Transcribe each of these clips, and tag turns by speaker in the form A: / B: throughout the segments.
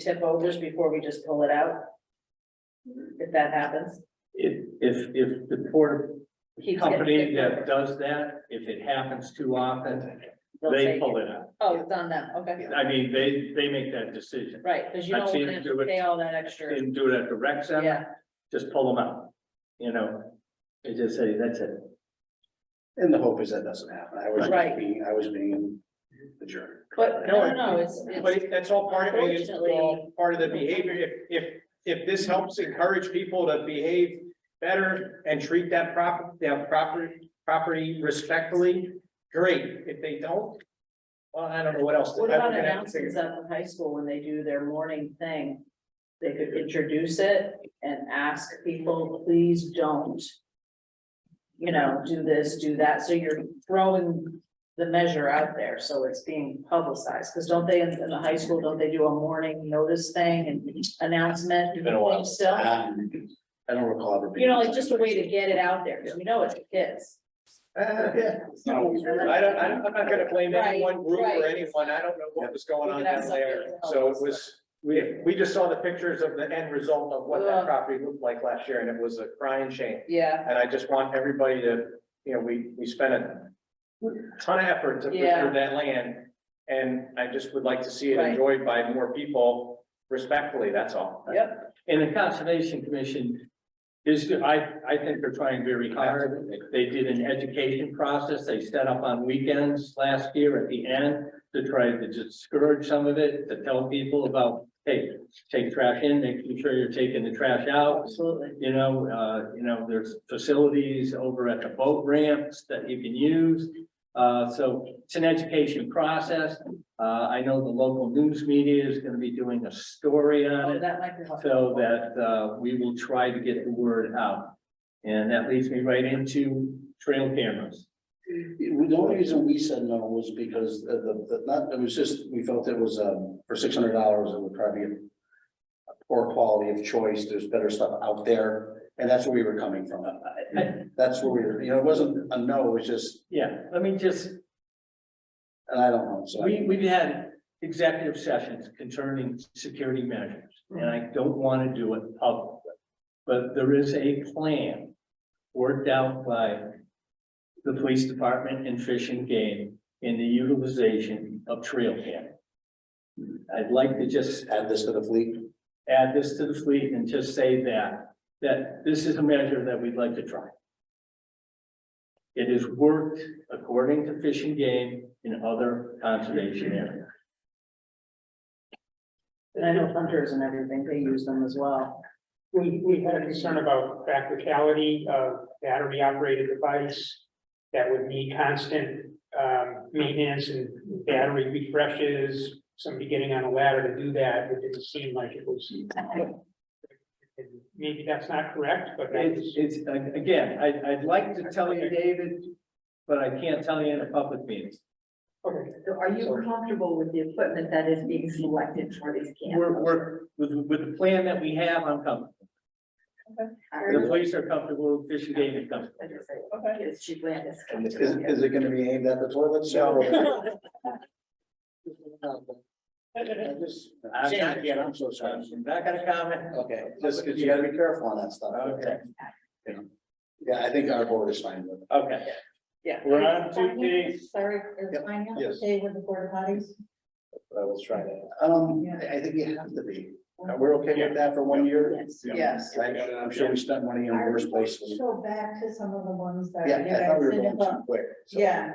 A: tip overs before we just pull it out? If that happens,
B: If, if, if the port
A: He gets
B: company
A: it.
B: that does that, if it happens too often,
A: they'll
B: they
A: take
B: pull
A: it.
B: it out.
A: Oh, it's on them, okay,
B: I mean, they, they make that decision.
A: right, because you
B: I've
A: don't
B: seen
A: want to
B: them
A: have
B: do
A: to
B: it.
A: pay all that extra,
B: Didn't do it at the rec center,
A: yeah,
B: just pull them out, you know? They just say, that's it.
C: And the hope is that doesn't happen. I was
A: Right.
C: being, I was being the jerk.
A: but no, no, no, it's,
D: But
A: it's,
D: it- that's all part of it, it's all
A: Unfortunately-
D: part of the behavior, if, if, if this helps encourage people to behave better and treat that prop, that property, property respectfully, great, if they don't, well, I don't know what else. to-
A: what
D: I'm
A: about
D: gonna have to figure
A: announcements
D: it out.
A: at the high school when they do their morning thing? They could introduce it and ask people, please don't. You know, do this, do that, so you're throwing the measure out there, so it's being publicized, because don't they, in in the high school, don't they do a morning notice thing and announcement?
C: It's been a while.
A: Still?
C: Um, I don't recall ever. being-
A: You know, like just a way to get it out there, because we know it's the kids.
D: Uh, yeah. I don't, I don't- I'm not gonna blame any one group
A: Right,
D: or
A: right.
D: anyone, I don't know what was going on
A: We can have
D: down there,
A: something
D: so it
A: else.
D: was, we, we just saw the pictures of the end result of what
A: Ugh.
D: that property looked like last year, and it was a crying shame.
A: Yeah,
D: And I just want everybody to, you know, we, we spent a ton of effort to
A: Yeah.
D: preserve that land. And I just would like to see it
A: Right.
D: enjoyed by more people respectfully, that's all.
A: yep,
B: And the Conservation Commission is, I, I think they're trying very hard. They did an education process. They set up on weekends last year at the end to try to discourage some of it, to tell people about, hey, take trash in, making sure you're taking the trash out.
A: absolutely.
B: You know, uh, you know, there's facilities over at the boat ramps that you can use. Uh, so it's an education process. Uh, I know the local news media is gonna be doing a story on
A: Oh,
B: it.
A: that might be helpful.
B: So that, uh, we will try to get the word out. And that leads me right into trail cameras.
C: The only reason we said no was because the, the, the- not, it was just, we felt it was, um, for six hundred dollars, it would probably be a poor quality of choice. There's better stuff out there. And that's where we were coming from. That's where we were, you know, it wasn't a no, it was just,
B: Yeah, let me just,
C: and I don't know, so.
B: we, we've had executive sessions concerning security measures, and I don't want to do it publicly. But there is a plan worked out by the police department and Fish and Game in the utilization of trail cam. I'd like to just
C: Add this to the fleet.
B: add this to the fleet and just say that, that this is a measure that we'd like to try. It has worked according to Fish and Game in other conservation areas.
A: And I know hunters and everything, they use them as well.
E: We, we had a concern about practicality of battery operated device that would need constant um, maintenance and battery refreshes, somebody getting on a ladder to do that, it didn't seem like it was. And Maybe that's not correct, but that's,
B: It's, it's, again, I, I'd like to tell you, David, but I can't tell you in a public meeting.
E: okay,
F: So are you comfortable with the equipment that is being selected for these camps?
B: We're, we're, with, with the plan that we have, I'm comfortable. The police are comfortable, Fish and Game is comfortable.
A: Okay.
F: Is she glad it's coming?
C: Is, is it gonna be aimed at the toilet shower? I just-
B: I'm not-
C: Again, I'm so sorry.
B: I'm not gonna comment.
C: Okay, just because you gotta be careful on that stuff.
B: Okay,
C: Yeah, I think our board is fine with it.
B: okay.
A: Yeah.
B: We're on to the
F: Sorry, is
C: Yep,
F: mine out
C: yes.
F: today with the board potties?
C: but I will try to. Um, I, I think you have to be. Uh, We're okay with that for one year?
F: Yes.
A: Yes.
C: I- I'm sure we spent money in worse places.
F: Go back to some of the ones that.
C: Yeah,
F: you
C: I thought we were
F: guys did
C: going too
F: about-
C: quick. so.
F: Yeah.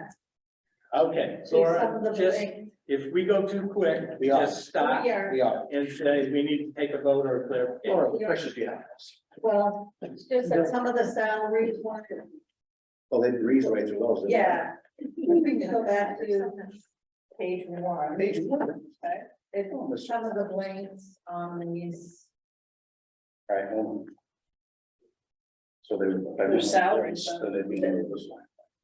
B: Okay,
F: see some of
B: Laura,
F: the oh,
B: just,
F: things.
B: if we go too quick,
C: We are.
B: just stop
A: Oh,
F: We are,
C: We are.
B: and say, we need to take a vote or a clarification.
C: Laura, the pressure's behind us.
F: well, it's just that some of the salaries weren't,
C: Well, they breeze right through those. didn't they?
F: yeah. We can go back to page one.
C: Page one.
F: It's some of the blanks on these.
C: All right, hold on. So they. would-
A: Their salary.
C: So they'd be in this line.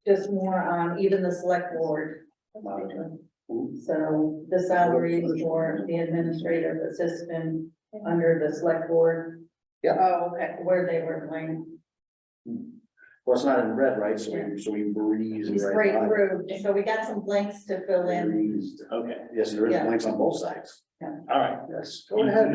F: just more on even the select board.
C: Ooh,
F: So the salaries for the administrative assistant under the select board,
A: Oh, okay.
F: where they were going.
C: Well, Well, it's not in red, right? So we, so we breezed
A: We
C: right
A: sprayed
C: by. it.
A: through, so we got some blanks to fill in.
C: Breezed.
B: Okay,
C: Yes, there is
A: Yeah.
C: blanks on both sides.
B: all right.
C: Yes.
B: Go ahead.